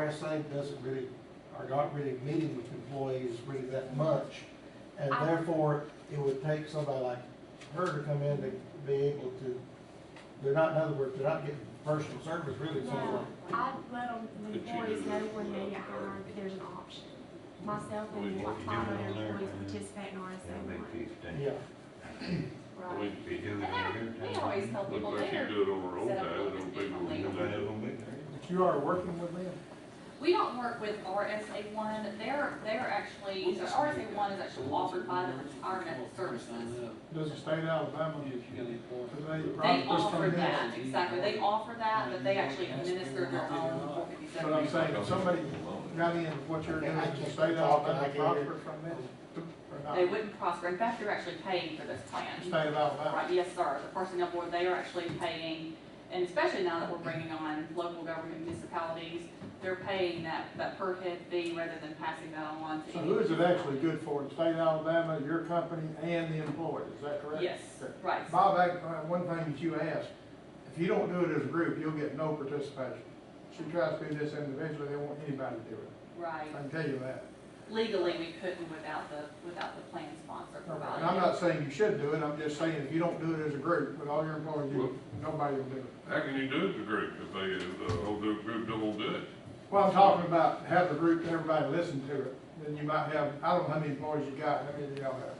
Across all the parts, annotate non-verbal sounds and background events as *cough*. RSA doesn't really, are not really meeting with employees really that much. And I- therefore, it would take somebody like her to come in to be able to, they're not, in other words, they're not getting personal service really somewhere. No, I'd let them, the Could you employees do know it when they get without the hired, that there's an option. Myself We and want like you five other doing it on there, employees man. participate in RSA That'll be one, fifteen. Yeah, right? We- If you do it every We time. always tell people Unless you later, do it over old Set up time, a it'll be different more than legal. Nobody that. gonna be there. but you are working with them. we don't work with RSA one, they're, they're actually, so RSA one is actually offered by the retirement services. Does the state of Alabama, They offer that, exactly, they offer that, but they actually administer their own. But I'm saying, if somebody got in what you're doing, you say that, I'll I then can't they hear. prosper from this, or not, They wouldn't prosper, in fact, you're actually paying for this stay plan. out of that. Right, yes, sir, the personnel board, they are actually paying, and especially now that we're bringing on local government municipalities, they're paying that, that per head fee rather than passing that on to. So any who is it individual. actually good for, the state of Alabama, your company, and the employee, is that correct? Yes, Okay. right. Bob, I- uh, one thing that you asked, if you don't do it as a group, you'll get no participation. She tries to do this individually, they won't anybody to do it, Right. I can tell you that. Legally, we couldn't without the, without the plan sponsor providing. And I'm not saying you should do it, I'm just saying if you don't do it as a group, with all your employees, you- nobody will do it. How can you do it as a group if they, uh, old group don't do it? Well, I'm talking about have the group, everybody listen to it, then you might have, I don't know how many employees you got, how many do y'all have?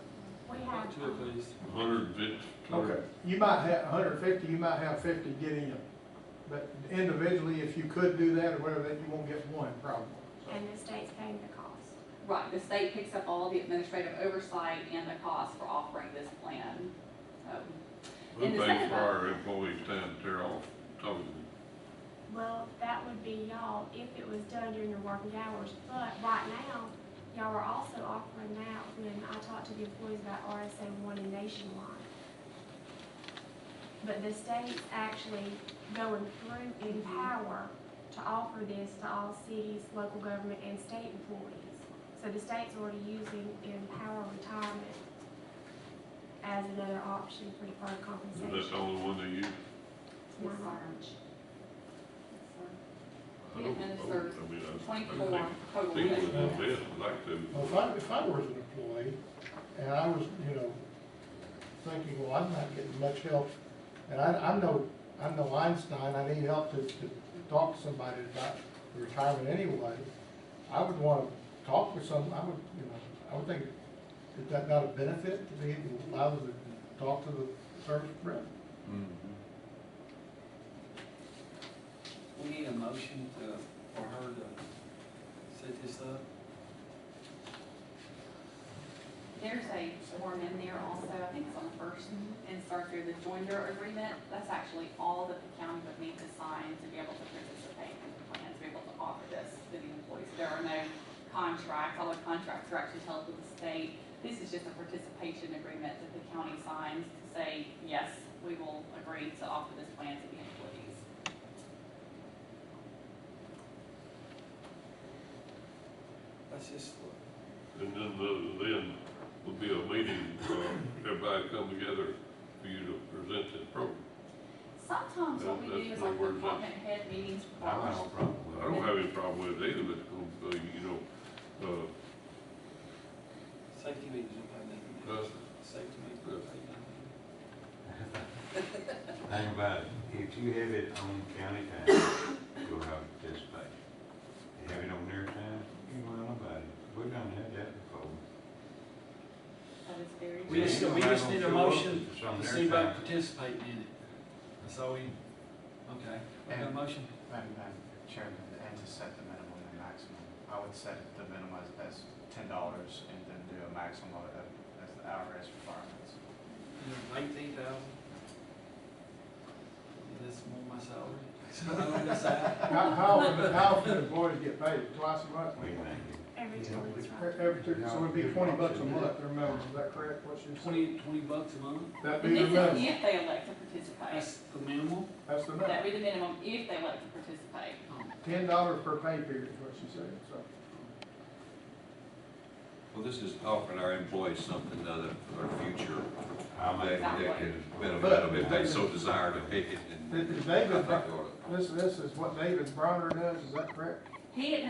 We have, um, Hundred and fifty. You might have hundred and fifty, you might have fifty get in, but individually, if you could do that or whatever, then you won't get one problem. and the state's paying the cost. Right, the state picks up all the administrative oversight and the cost for offering this plan. Um, Who In the pays second for one. our employees' time to tear off, totally? Well, that would be y'all if it was done during your working hours, but right now, y'all are also offering that when I talked to the employees about RSA one and nationwide. But the state's actually going through in power to offer this to all cities, local government, and state employees. So the state's already using Empower Retirement as another option for deferred Is that compensation. the only one they use? It's yes, not sir. ours. Yes, sir. I We don't- administer I mean, I- I Twenty-four total. think- Think days. with this, I'd like to, Well, if I, if I was an employee, and I was, you know, thinking, well, I'm not getting much help, and I, I know, I know Einstein, I need help to, to talk to somebody about retirement anyway, I would wanna talk with some, I would, you know, I would think, is that not a benefit to be able to allow them to talk to the service rep? We need a motion to, for her to set this up. There's a form in there also, I think it's on the first insert through the joinder agreement. That's actually all that the county would need to sign to be able to participate in the plan, to be able to offer this to the employees. There are no contracts, all the contracts are actually held with the state. This is just a participation agreement that the county signs to say, yes, we will agree to offer this plan to the employees. Let's just, and then, the- then would be a meeting, uh, everybody come together for you to present this program. Sometimes what we That- do that's is no like words, that's- department head meetings for I don't have a problem I with don't have any problem with it either, but, it's gonna be, you know, uh, safety meetings will pay nothing. us, Safety meetings will pay nothing. it. Think about it, if you have it on county time, you'll have participation. You have it on their time, you won't have nobody, we done had that before. That is very We just- true. we just need a motion It's on To their see about time. participating in it. That's all we, okay, we got a motion. Madam Madam Chairman, and to set the minimum and maximum, I would set the minimum as- as ten dollars and then do a maximum of, of- as the IRS requirements. Eighteen thousand. That's more my salary. So *laughs* I don't decide. How, how, often- how often employees get paid, twice a month? We thank you. Every time it's right. Every two, so it'd be twenty bucks a month, their minimum, is that correct, what she said? Twenty, twenty bucks a month, That'd And be the this is minimum, if they elect to participate. that's the minimal. that's the That'd minimum, be the minimum if they elect to participate. ten dollars per pay period is what she said, so. Well, this is offering our employees something other for their future. I'll They, make, they can benefit But- of if they so desire to pick it and. Did- did I David, think they ought to. this, this is what David Bronner does, is that correct? He didn't